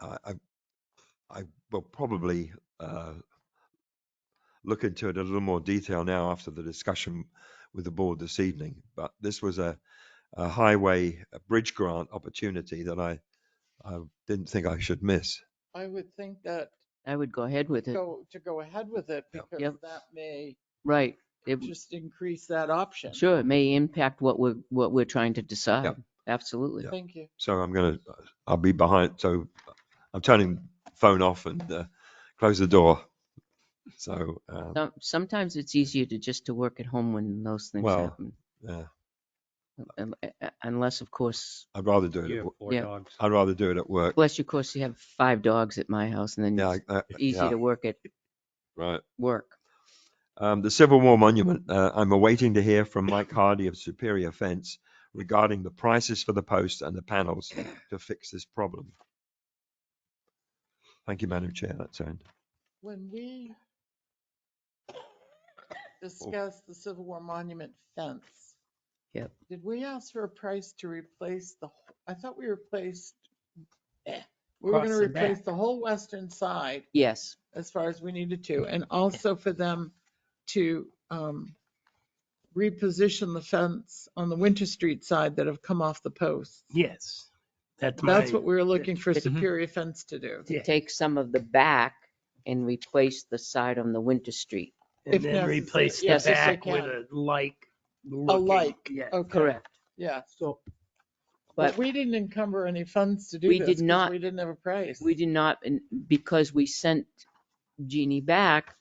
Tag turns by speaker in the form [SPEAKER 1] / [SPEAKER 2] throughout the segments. [SPEAKER 1] I I, I will probably uh, look into it a little more detail now after the discussion with the board this evening. But this was a, a highway a bridge grant opportunity that I, I didn't think I should miss.
[SPEAKER 2] I would think that
[SPEAKER 3] I would go ahead with it.
[SPEAKER 2] go, to go ahead with it
[SPEAKER 1] Yep.
[SPEAKER 2] because
[SPEAKER 3] Yep.
[SPEAKER 2] that may
[SPEAKER 3] Right. It,
[SPEAKER 2] just increase that option.
[SPEAKER 3] sure, it may impact what we're, what we're trying to decide. Absolutely.
[SPEAKER 1] Yep.
[SPEAKER 2] Thank you.
[SPEAKER 1] So I'm going to, I'll be behind. So I'm turning phone off and uh, close the door. So, uh,
[SPEAKER 3] Some- Sometimes it's easier to just to work at home when those things
[SPEAKER 1] Well,
[SPEAKER 3] happen.
[SPEAKER 1] yeah,
[SPEAKER 3] Um, uh, uh, Unless, of course,
[SPEAKER 1] I'd rather do it.
[SPEAKER 4] You
[SPEAKER 1] At,
[SPEAKER 4] have
[SPEAKER 1] wo-
[SPEAKER 4] four
[SPEAKER 3] Yeah.
[SPEAKER 4] dogs.
[SPEAKER 1] I'd rather do it at work.
[SPEAKER 3] unless you, of course, you have five dogs at my house and
[SPEAKER 1] Yeah,
[SPEAKER 3] then
[SPEAKER 1] I- uh,
[SPEAKER 3] it's
[SPEAKER 1] I-
[SPEAKER 3] easy
[SPEAKER 1] yeah,
[SPEAKER 3] to work at
[SPEAKER 1] right.
[SPEAKER 3] work.
[SPEAKER 1] Um, the Civil War Monument, uh, I'm awaiting to hear from Mike Hardy of Superior Fence regarding the prices for the posts and the panels to fix this problem. Thank you, Madam Chair. That's end.
[SPEAKER 2] When we
[SPEAKER 3] Oh.
[SPEAKER 2] discussed the Civil War monument fence.
[SPEAKER 3] Yep.
[SPEAKER 2] Did we ask for a price to replace the, wh- I thought we replaced, eh, we were
[SPEAKER 4] Across
[SPEAKER 2] gonna
[SPEAKER 4] the
[SPEAKER 2] replace
[SPEAKER 4] back.
[SPEAKER 2] the whole western side
[SPEAKER 3] Yes,
[SPEAKER 2] as far as we needed to, and also for them to um, reposition the fence on the Winter Street side that have come off the posts.
[SPEAKER 4] Yes, that's my.
[SPEAKER 2] That's what we were looking for
[SPEAKER 4] Mhm.
[SPEAKER 2] Superior Fence to do.
[SPEAKER 4] Yeah,
[SPEAKER 3] take some of the back and replace the side on the Winter Street.
[SPEAKER 2] if
[SPEAKER 4] And then
[SPEAKER 2] necessary.
[SPEAKER 4] replace the
[SPEAKER 3] Yes,
[SPEAKER 2] if they
[SPEAKER 4] back with a like.
[SPEAKER 2] A like,
[SPEAKER 4] Yeah.
[SPEAKER 2] okay,
[SPEAKER 3] Correct.
[SPEAKER 2] yeah.
[SPEAKER 4] So
[SPEAKER 2] But
[SPEAKER 3] But
[SPEAKER 2] we didn't encumber any funds to do
[SPEAKER 3] We
[SPEAKER 2] this.
[SPEAKER 3] did
[SPEAKER 2] 'cause
[SPEAKER 3] not.
[SPEAKER 2] We didn't have a price.
[SPEAKER 3] we did not, and because we sent Jeannie back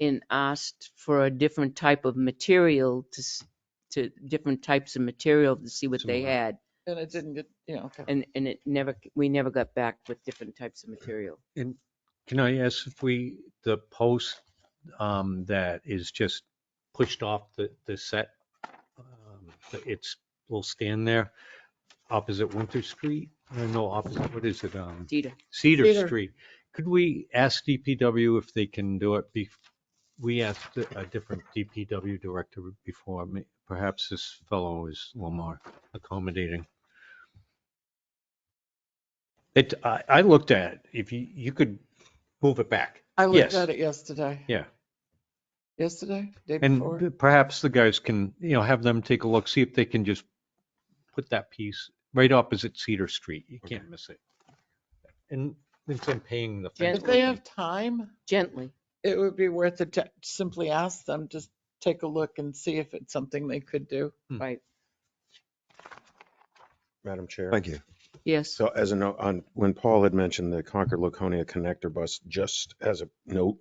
[SPEAKER 3] and asked for a different type of material to, s- to different types of material to see what they
[SPEAKER 1] Similar.
[SPEAKER 3] had.
[SPEAKER 2] And it didn't get, you know, okay.
[SPEAKER 3] And, and it never, we never got back with different types of material.
[SPEAKER 5] And can I ask if we, the post um, that is just pushed off the, the set, um, that it's, will stand there opposite Winter Street? Uh, No, opposite, what is it? um,
[SPEAKER 3] Dita,
[SPEAKER 2] Cedar.
[SPEAKER 5] Cedar Street. Could we ask DPW if they can do it? bef- We asked a a different DPW director before. Ma- Perhaps this fellow is a little more accommodating. It, I, I looked at, it. if you, you could move it back.
[SPEAKER 2] I looked
[SPEAKER 5] yes.
[SPEAKER 2] at it yesterday.
[SPEAKER 5] Yeah.
[SPEAKER 2] Yesterday, day before.
[SPEAKER 5] And perhaps the guys can, you know, have them take a look, see if they can just put that piece right opposite Cedar Street. You can't miss it. And since I'm paying the. fence
[SPEAKER 2] If they
[SPEAKER 5] company-
[SPEAKER 2] have time.
[SPEAKER 3] gently.
[SPEAKER 2] it would be worth it to simply ask them to take a look and see if it's something they could do.
[SPEAKER 6] Madam Chair.
[SPEAKER 1] Thank you.
[SPEAKER 3] Yes,
[SPEAKER 6] So as a note, on, when Paul had mentioned the Concord Laconia connector bus, just as a note,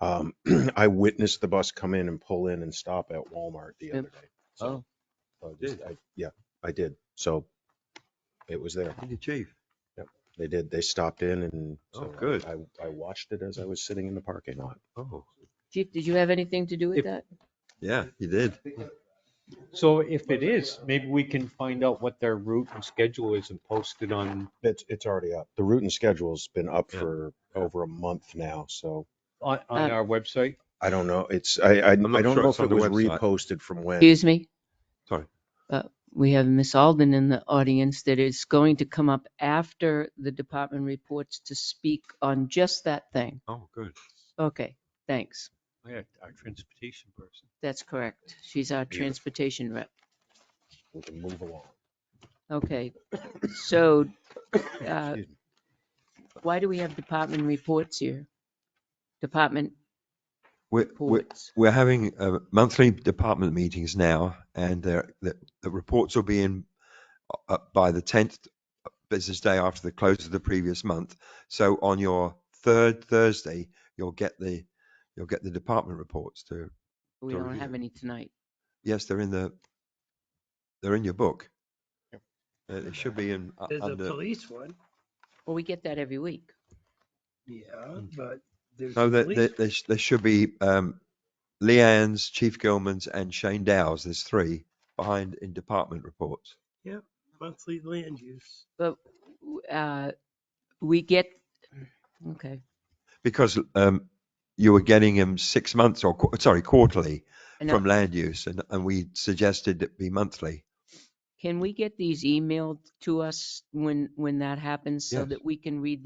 [SPEAKER 6] um, I witnessed the bus come in and pull in and stop at Walmart the
[SPEAKER 3] Yep.
[SPEAKER 6] other day. So, so just-
[SPEAKER 1] Did.
[SPEAKER 6] I- Yeah, I did. So it was there.
[SPEAKER 1] Thank you, Chief.
[SPEAKER 6] They did, they stopped in and.
[SPEAKER 1] Oh,
[SPEAKER 6] so I-
[SPEAKER 1] good.
[SPEAKER 6] I, I watched it as I was sitting in the parking lot.
[SPEAKER 1] Oh,
[SPEAKER 3] Chief, did you have anything to do with
[SPEAKER 5] If-
[SPEAKER 3] that?
[SPEAKER 1] yeah, you did.
[SPEAKER 5] So if it is, maybe we can find out what their route and schedule is and post it on,
[SPEAKER 6] It's, it's already up. The route and schedule's been up
[SPEAKER 1] Yeah.
[SPEAKER 6] for over a month now, so
[SPEAKER 5] on, on our website.
[SPEAKER 6] I don't know. It's, I, I, I
[SPEAKER 1] not
[SPEAKER 6] don't
[SPEAKER 1] sure
[SPEAKER 6] know
[SPEAKER 1] it's
[SPEAKER 6] if
[SPEAKER 1] on
[SPEAKER 6] it
[SPEAKER 1] the
[SPEAKER 6] was
[SPEAKER 1] website.
[SPEAKER 6] reposted from when.
[SPEAKER 3] Excuse me?
[SPEAKER 1] Sorry.
[SPEAKER 3] Uh, We have Miss Alden in the audience that is going to come up after the department reports to speak on just that thing.
[SPEAKER 1] Oh, good.
[SPEAKER 3] Okay, thanks.
[SPEAKER 5] Yeah, our transportation person.
[SPEAKER 3] That's correct. She's our transportation rep.
[SPEAKER 6] We can move along.
[SPEAKER 3] Okay, so uh,
[SPEAKER 6] Excuse me.
[SPEAKER 3] why do we have department reports here? Department
[SPEAKER 1] We're, we're,
[SPEAKER 3] reports.
[SPEAKER 1] we're having uh, monthly department meetings now, and they're- the, the reports will be in uh, by the 10th business day after the close of the previous month. So on your third Thursday, you'll get the you'll get the department reports. To
[SPEAKER 3] We
[SPEAKER 1] to
[SPEAKER 3] don't
[SPEAKER 1] review.
[SPEAKER 3] have any tonight.
[SPEAKER 1] yes, they're in the they're in your book. Uh, It should be in uh,
[SPEAKER 4] there's a
[SPEAKER 1] under.
[SPEAKER 4] police one.
[SPEAKER 3] Well, we get that every week.
[SPEAKER 4] Yeah, but there's.
[SPEAKER 1] No,
[SPEAKER 4] a
[SPEAKER 1] there,
[SPEAKER 4] police-
[SPEAKER 1] there, there sh- there should be um, Leanne's, Chief Gilman's, and Shane Dow's. There's three behind in department reports.
[SPEAKER 4] Monthly land use.
[SPEAKER 3] W- uh, We get, okay,
[SPEAKER 1] because um, you were getting them six months or qu- sorry quarterly
[SPEAKER 3] I know.
[SPEAKER 1] from land use, and, and we suggested it be monthly.
[SPEAKER 3] can we get these emailed to us when, when that happens so
[SPEAKER 1] Yes.
[SPEAKER 3] that we can read